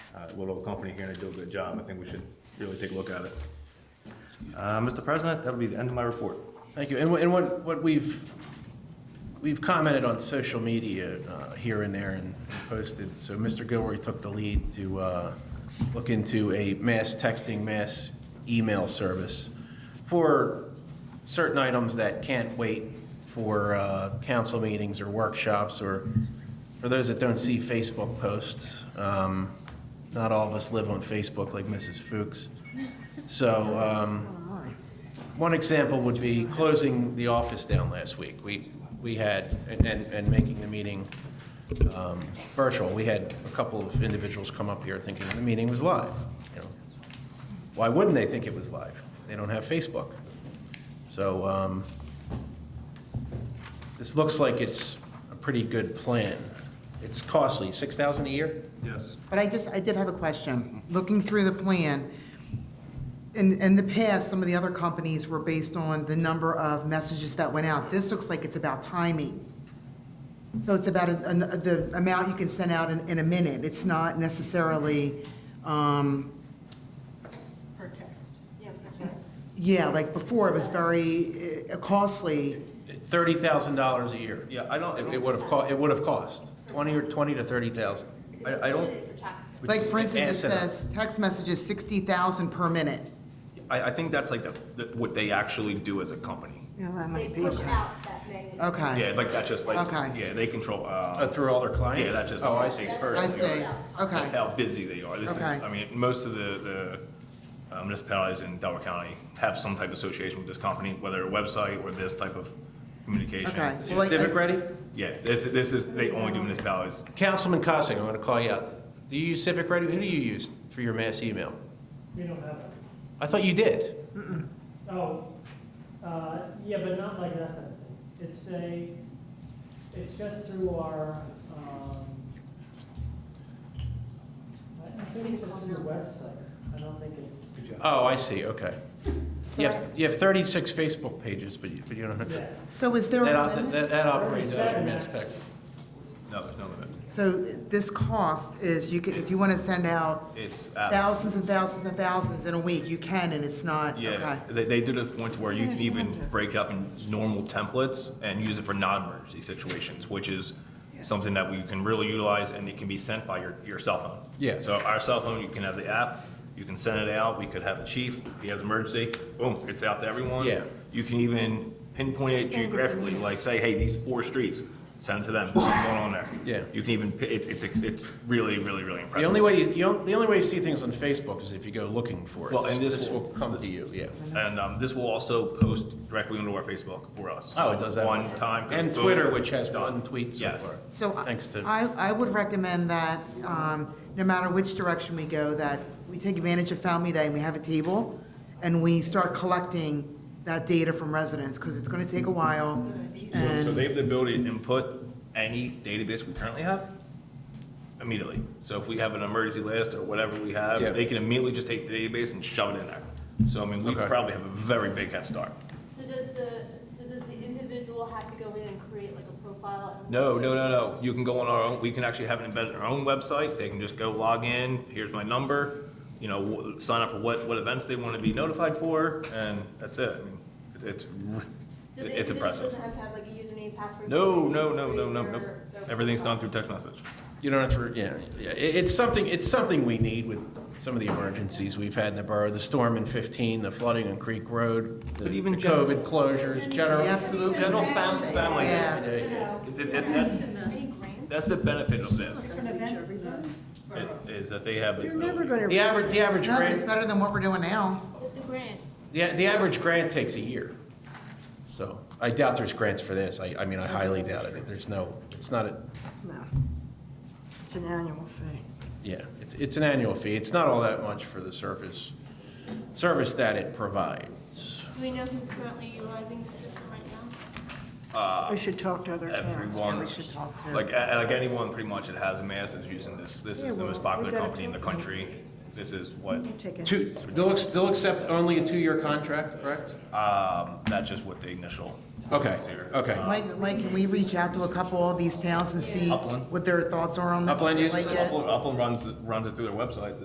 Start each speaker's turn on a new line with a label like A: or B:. A: uh, little company here and they do a good job. I think we should really take a look at it. Uh, Mr. President, that would be the end of my report.
B: Thank you. And wh- and what, what we've, we've commented on social media uh, here and there and posted. So Mr. Gilroy took the lead to uh, look into a mass texting, mass email service for certain items that can't wait for uh, council meetings or workshops or for those that don't see Facebook posts. um, Not all of us live on Facebook like Mrs. Fuchs. So, um, one example would be closing the office down last week. We, we had, and, and and making the meeting um, virtual. We had a couple of individuals come up here thinking the meeting was live, you know. Why wouldn't they think it was live? They don't have Facebook. So um, this looks like it's a pretty good plan. It's costly, 6000 a year?
A: Yes.
C: But I just, I did have a question. Looking through the plan, in, in the past, some of the other companies were based on the number of messages that went out. This looks like it's about timing. So it's about a- an- the amount you can send out in, in a minute. It's not necessarily, um,
D: Per text.
C: yeah, like before, it was very eh, costly.
B: $30,000 a year.
A: Yeah, I don't,
B: It would have cost, it would have cost, 20 or 20 to 30,000.
A: I, I don't,
C: Like, for instance, it
B: asinine.
C: says, text messages, 60,000 per minute.
A: I, I think that's like the, the- what they actually do as a company.
D: They push out that magnitude.
C: Okay.
A: Yeah, like that's just like,
C: Okay.
A: yeah, they control,
B: Uh,
A: uh,
B: Through all their clients?
A: yeah, that's just.
B: Oh, I
A: what
B: see.
A: they
C: I
A: personally
C: see,
A: are.
C: okay.
A: That's how busy they are. This is,
C: Okay.
A: I mean, most of the, the uh, municipalities in Delaware County have some type of association with this company, whether a website or this type of communication.
C: Okay.
B: Is
C: Well, like,
B: Civic
C: I-
B: ready?
A: Yeah, this, this is, they only do municipalities.
B: Councilman Cossing, I'm going to call you out. Do you use Civic Ready? Who do you use for your mass email?
E: We don't have it.
B: I thought you did.
E: Oh, uh, yeah, but not like that type of thing. It's a, it's just through our, um, I- I think it's just through your website. I don't think it's,
B: Oh, I see, okay.
C: So
B: You
C: I-
B: have, you have 36 Facebook pages, but you, but you don't have,
E: yeah.
C: So is there?
B: that,
C: a
B: op-
C: limit?
B: that that operates out of
E: Thirty-seven.
B: mass text.
A: No, there's no limit.
C: So this cost is, you could, if you want to send out
A: It's, uh,
C: thousands and thousands and thousands in a week, you can, and it's not, okay.
A: yeah, they, they do to the point where you can even break up in normal templates and use it for non-emergency situations, which is something that we can really utilize and it can be sent by your, your cell phone.
B: Yeah.
A: So our cell phone, you can have the app, you can send it out, we could have the chief, if he has emergency, boom, it's out to everyone.
B: Yeah.
A: You can even pinpoint it geographically, like say, hey, these four streets, send it to them, what's going on there?
B: Yeah.
A: You can even, pi- it, it's, it's really, really, really impressive.
B: The only way, you- you, don't- the only way you see things on Facebook is if you go looking for it.
A: Well, and this will-
B: will come to you, yeah.
A: And um, this will also post directly onto our Facebook for us.
B: Oh, it does that.
A: One time.
B: And
A: boom,
B: Twitter, which has
A: done.
B: one tweet so
A: Yes.
B: far.
C: So I-
B: Thanks to-
C: I, I would recommend that, um, no matter which direction we go, that we take advantage of Family Day, and we have a table, and we start collecting that data from residents, because it's going to take a while,
A: So- So
C: and,
A: they have the ability to input any database we currently have immediately. So if we have an emergency list or whatever we
B: Yeah.
A: have, they can immediately just take the database and shove it in there. So I mean, we
B: Okay.
A: probably have a very big head start.
F: So does the, so does the individual have to go in and create like a profile? and-
A: No, no, no, no. You can go on our own, we can actually have it embedded in our own website. They can just go log in, here's my number, you know, w- sign up for what, what events they want to be notified for, and that's it. I mean, it- It's, r-
F: So the
A: it's
F: individual
A: impressive.
F: Doesn't have to have like a username, password?
A: No,
F: to
A: no, no, no,
F: create
A: no,
F: their-
A: no.
F: their
A: Everything's done
F: profile?
A: through text message.
B: You don't have to, yeah, yeah, it, it's something, it's something we need with some of the emergencies we've had in the borough, the storm in fifteen, the flooding on Creek Road, the the
A: But even general-
B: COVID closures, general.
C: Yeah, absolutely.
A: General fam- family.
C: Yeah.
B: Yeah, yeah.
A: It- it- it- that's, that's the benefit of this, it- is that they have. You're never gonna.
B: The average, the average
C: no, it's
B: grant,
C: better than what we're doing now.
F: With the grant.
B: the, the average grant takes a year. So I doubt there's grants for this. I, I mean, I highly doubt it. There's no, it's not a,
G: No. It's an annual fee.
B: yeah, it's, it's an annual fee. It's not all that much for the service, service that it provides.
F: Do we know who's currently utilizing the system right now?
G: We should talk to other towns.
A: Everyone,
C: We should talk to-
A: like, a- like anyone pretty much that has a mass is using this, this is the most popular company in the country. this is what,
G: Take it.
B: Two, they'll, ex- they'll accept only a two-year contract, correct?
A: um, that's just what the initial.
B: Okay,
A: is here.
B: okay.
C: Mike, Mike, can we reach out to a couple of these towns and see
A: Upland.
C: what their thoughts are on this?
B: Upland
C: They
B: uses
C: like
B: it?
C: it?
A: Upland Upland runs, runs it through their website.